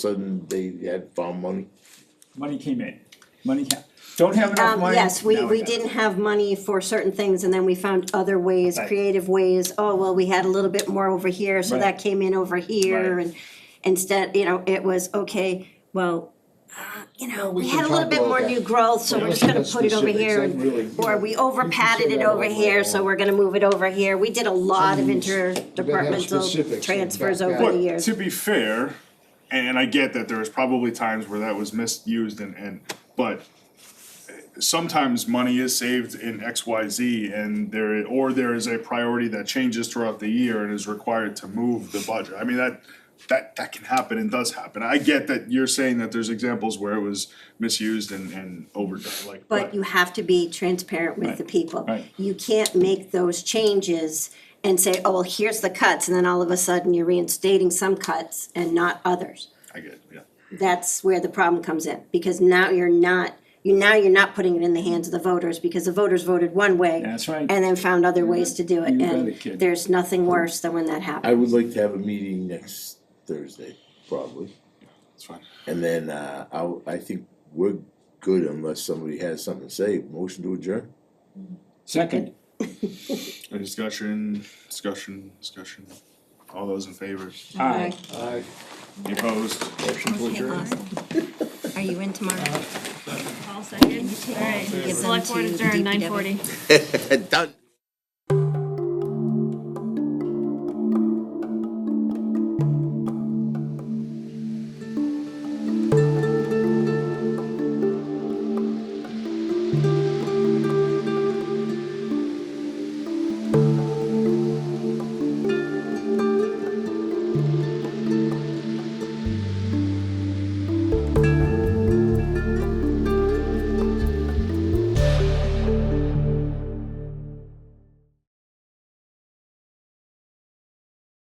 sudden they had found money? Money came in, money ca- don't have enough Um, money? yes, we, Now we got it. didn't have money for certain things and then we found other ways, Right. creative ways. Oh, well, we had a little bit more over here, so Right. that came in over here Right. and instead, you know, it was, okay, well, uh, you know, we can had a little talk bit about more that. new growth, so we're just gonna put it over here. and- Or we over padded it over here, so we're gonna move it over here. We did a lot of Sometimes you gotta have specifics interdepartmental and transfers back over out. the But years. to be fair, and I get that there was probably times where that was misused and, and, but eh, sometimes money is saved in X, Y, Z and there, or there is a priority that changes throughout the year and is required to move the budget. I mean, that, that, that can happen and does happen. I get that you're saying that there's examples where it was misused and, and overdone, like. But you have to be transparent with the people. right. You can't make those changes and say, oh, well, here's the cuts, and then all of a sudden you're reinstating some cuts and not others. I get, it, yeah. That's where the problem comes in, because now you're not, you, now you're not putting it in the hands of the voters, because the voters voted one way. That's right. And then found other ways to do it, You got and it, kid. there's nothing worse than when that I happens. would like to have a meeting next Thursday, probably, That's fine. and then, uh, I, I think we're good unless somebody has something to say, motion to adjourn? Second, Any discussion, discussion, discussion? All those in favor? aye. Aye. Any Opposed? Motion to adjourn. Are you in tomorrow? All second, alright, Give them select board to the adjourned nine DPW. forty. Done.